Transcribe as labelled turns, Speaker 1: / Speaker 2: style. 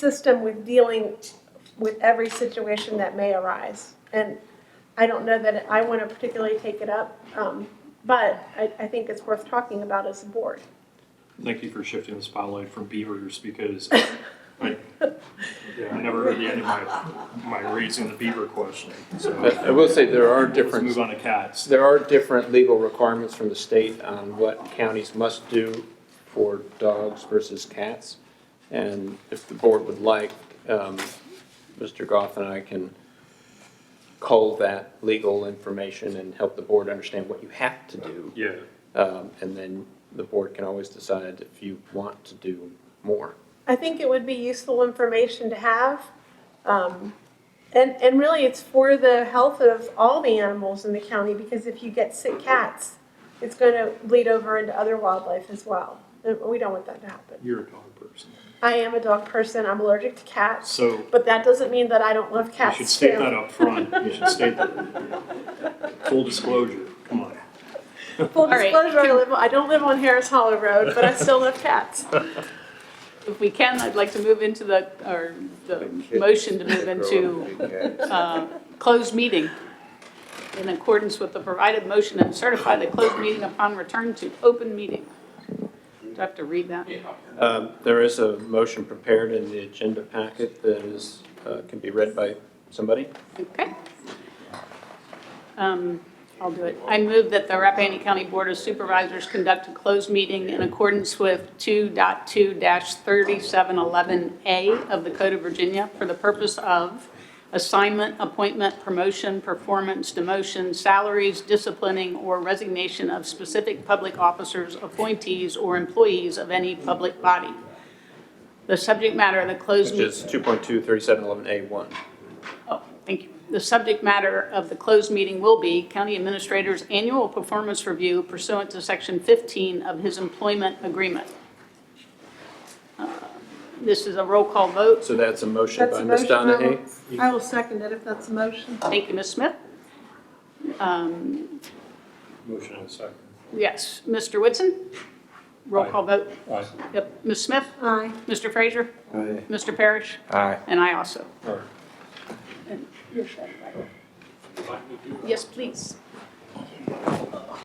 Speaker 1: system with dealing with every situation that may arise. And I don't know that I want to particularly take it up, um, but I, I think it's worth talking about as a board.
Speaker 2: Thank you for shifting the spotlight from beavers because I, yeah, I never heard the end of my, my raising the beaver question. So
Speaker 3: I I will say there are
Speaker 2: let's move
Speaker 3: different,
Speaker 2: on to cats.
Speaker 3: there are different legal requirements from the state on what counties must do for dogs versus cats. And if the board would like, um, Mr. Goff and I can cull that legal information and help the board understand what you have to do.
Speaker 2: Yeah,
Speaker 3: Um, And then the board can always decide if you want to do more.
Speaker 1: I think it would be useful information to have. Um, and, and really, it's for the health of all the animals in the county because if you get sick cats, it's going to bleed over into other wildlife as well. And We don't want that to happen.
Speaker 2: you're a dog person.
Speaker 1: I am a dog person. I'm allergic to cats,
Speaker 2: So
Speaker 1: but that doesn't mean that I don't love
Speaker 2: you
Speaker 1: cats.
Speaker 2: should state
Speaker 1: too.
Speaker 2: that up front. You should state that. Full disclosure, come on.
Speaker 1: Full
Speaker 4: right.
Speaker 1: disclosure, I, live, I don't live on Harris Hollow Road, but I still love cats.
Speaker 4: If we can, I'd like to move into the, or the motion to move into uh, closed meeting in accordance with the provided motion and certify the closed meeting upon return to open meeting. Do I have to read that?
Speaker 3: Um, There is a motion prepared in the agenda packet that is, uh, can be read by somebody.
Speaker 4: Okay. Um, I'll do it. I move that the Rappahannock County Board of Supervisors conduct a closed meeting in accordance with 2.2-3711A of the Code of Virginia for the purpose of assignment, appointment, promotion, performance, demotion, salaries, disciplining, or resignation of specific public officers, appointees, or employees of any public body. The subject matter of the closed
Speaker 3: Which
Speaker 4: meeting.
Speaker 3: is 2.23711A1.
Speaker 4: Oh, thank you. The subject matter of the closed meeting will be County Administrator's Annual Performance Review pursuant to Section 15 of his employment agreement. Uh, This is a roll call vote.
Speaker 3: So that's a motion
Speaker 1: That's
Speaker 3: by
Speaker 1: a
Speaker 3: Ms.
Speaker 1: motion. I will-
Speaker 3: Donahue.
Speaker 1: I will second it if that's a motion.
Speaker 4: Thank you, Ms. Smith. Um,
Speaker 2: Motion and second.
Speaker 4: Yes, Mr. Whitson? Roll call vote.
Speaker 2: Aye.
Speaker 4: Yep, Ms. Smith?
Speaker 1: Aye.
Speaker 4: Mr. Frazier?
Speaker 1: uh-huh.
Speaker 4: Mr. Parrish?
Speaker 3: Aye.
Speaker 4: And I also.
Speaker 2: All right.
Speaker 4: Yes, please.